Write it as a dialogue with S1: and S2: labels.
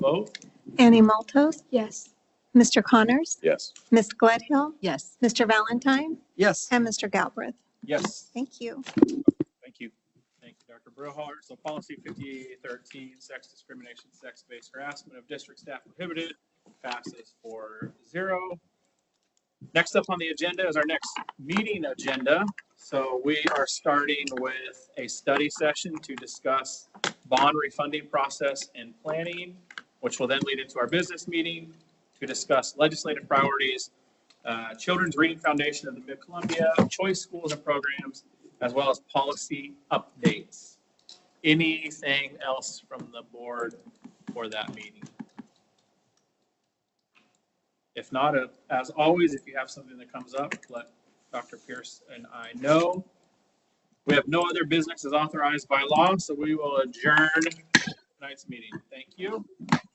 S1: Vote?
S2: Annie Maltos,
S3: Yes.
S2: Mr. Connors,
S1: Yes.
S2: Ms. Gledhill,
S4: Yes.
S2: Mr. Valentine,
S1: Yes.
S2: and Mr. Galbraith.
S1: Yes.
S2: Thank you.
S1: Thank you. Thank you, Dr. Brillhart. So policy 5813, sex discrimination, sex-based harassment of district staff prohibited, passes four zero. Next up on the agenda is our next meeting agenda. So we are starting with a study session to discuss bond refunding process and planning, which will then lead into our business meeting to discuss legislative priorities, uh, Children's Reading Foundation of the Mid-Columbia, choice schools and programs, as well as policy updates. Anything else from the board for that meeting? If not, uh, as always, if you have something that comes up, let Dr. Pierce and I know. We have no other business as authorized by law, so we will adjourn tonight's meeting. Thank you.